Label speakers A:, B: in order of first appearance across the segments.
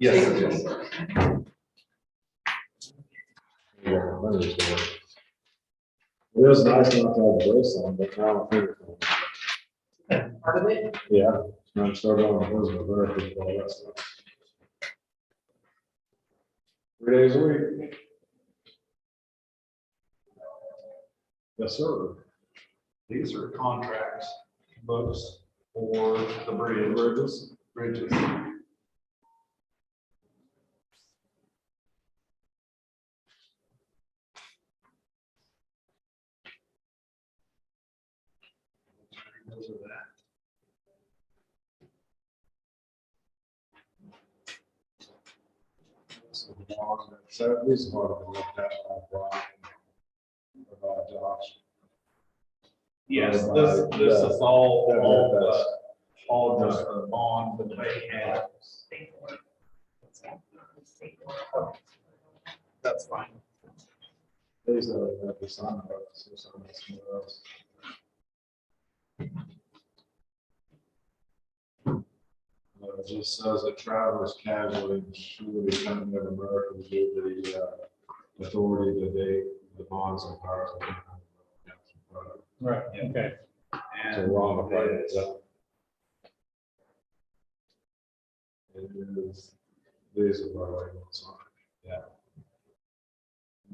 A: Yes, it is.
B: It was nice not to have a brace on, but now I think.
C: part of it.
B: Yeah, I'm starting on those, but very good, all that stuff. Three days a week. Yes, sir.
A: These are contracts, books for the bridge.
B: Bridges.
A: Bridges. Those are that.
B: So at least part of the looked at by Brian. About Josh.
A: Yes, this, this is all,
B: Yeah,
A: all,
B: yeah, that's-
A: the- all just the bond that they had.
C: That's fine.
B: There's a, a sign about this or something somewhere else. Uh, It just says that travelers casually should be coming of Americans due to the uh, authority that they, the bonds and powers. of the United States.
D: Right, okay.
B: So
A: And
B: we're on the right.
A: it is-
B: It is, these are my way, sorry.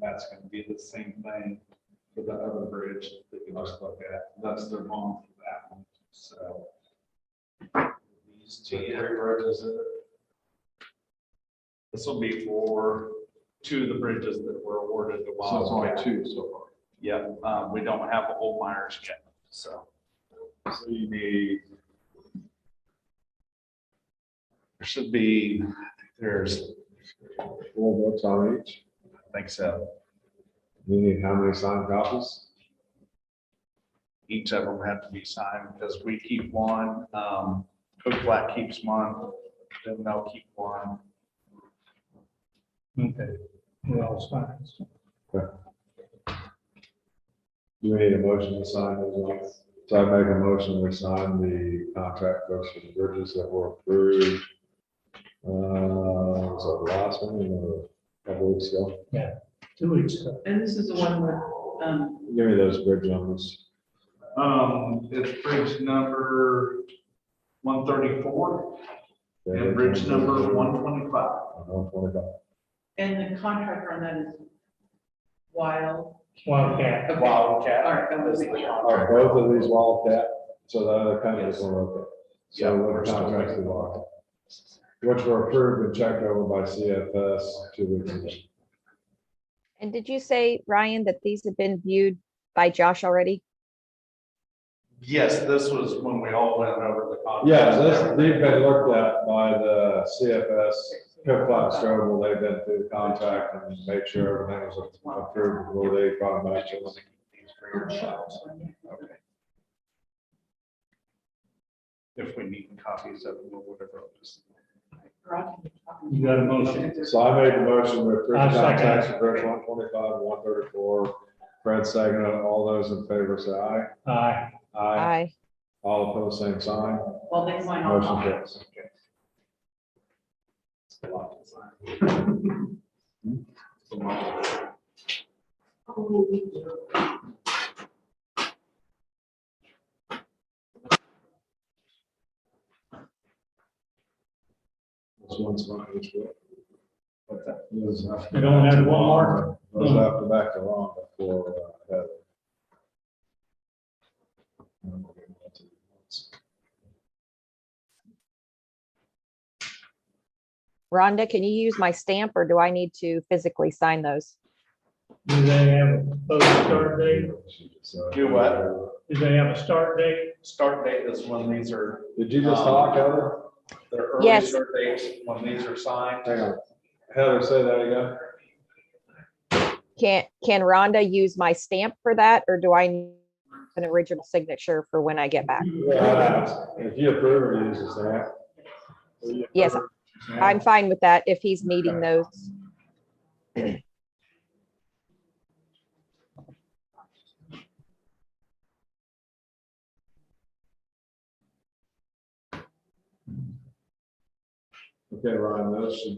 A: that's gonna be the same thing for the other bridge that you just look at. That's their bond for that one, so. These two, uh,
B: Three bridges in it.
A: this will be for two of the bridges that were awarded the
B: So it's
A: Wildcat.
B: only two so far.
A: Yep, um, we don't have a whole Myers yet, so.
B: So you need,
A: There should be, there's,
B: well, what's on each?
A: I think so,
B: You need how many signed copies?
A: each of them have to be signed, because we keep one, um, Cook Flat keeps one, then they'll keep one.
D: Okay. Well, it's fine.
B: You need a motion to sign those ones. So I make a motion, we sign the contract books for the bridges that were approved. Uh, was that the last one, you know, a couple weeks ago?
D: Two weeks ago.
C: And this is the one with, um,
B: Give me those bridge numbers.
A: Um, it's bridge number one thirty-four and bridge number one twenty-five.
B: One twenty-five.
C: and the contractor on that is Wild.
D: Wildcat.
C: Okay.
A: Wildcat.
C: All right, that was it.
B: Are both of these Wildcat? So the other company is
A: Yes.
B: one okay.
A: Yeah,
B: So
A: we're
B: what
A: still
B: contracts
A: waiting.
B: we locked? Which were approved and checked over by CFS two weeks ago.
E: And did you say, Ryan, that these have been viewed by Josh already?
A: Yes, this was when we all went over the contract.
B: Yeah, this, they've been looked at by the CFS, Cook Flat Strobel, they've been through the contract and made sure everything was approved before they brought back to us.
A: Okay. If we need copies of them or whatever. I'll just-
D: You got a motion?
B: So I made a motion to approve
D: I'll
B: the
D: second
B: contracts
D: it.
B: for Bridge one twenty-five, one thirty-four. Fred second, all those in favor say aye.
D: Aye.
B: Aye.
E: Aye.
B: All opposed, same sign.
C: Well, they sign off
B: Motion
C: on it.
B: carries. This one's mine, which one? What's that? Those after-
D: You don't have one more?
B: Those after back to Ron before, uh, Heather.
E: Rhonda, can you use my stamp or do I need to physically sign those?
D: Do they have a proposed start date?
A: Do what?
D: Do they have a start date?
A: Start date is when these are,
B: Did you just talk, Heather?
A: the early
E: Yes.
A: start dates, when these are signed.
B: Hang on. Heather, say that again.
E: Can, can Rhonda use my stamp for that or do I need an original signature for when I get back?
B: Uh, If you approve or use the stamp.
E: Yes, I'm fine with that if he's needing those.
B: Okay, Ryan, those should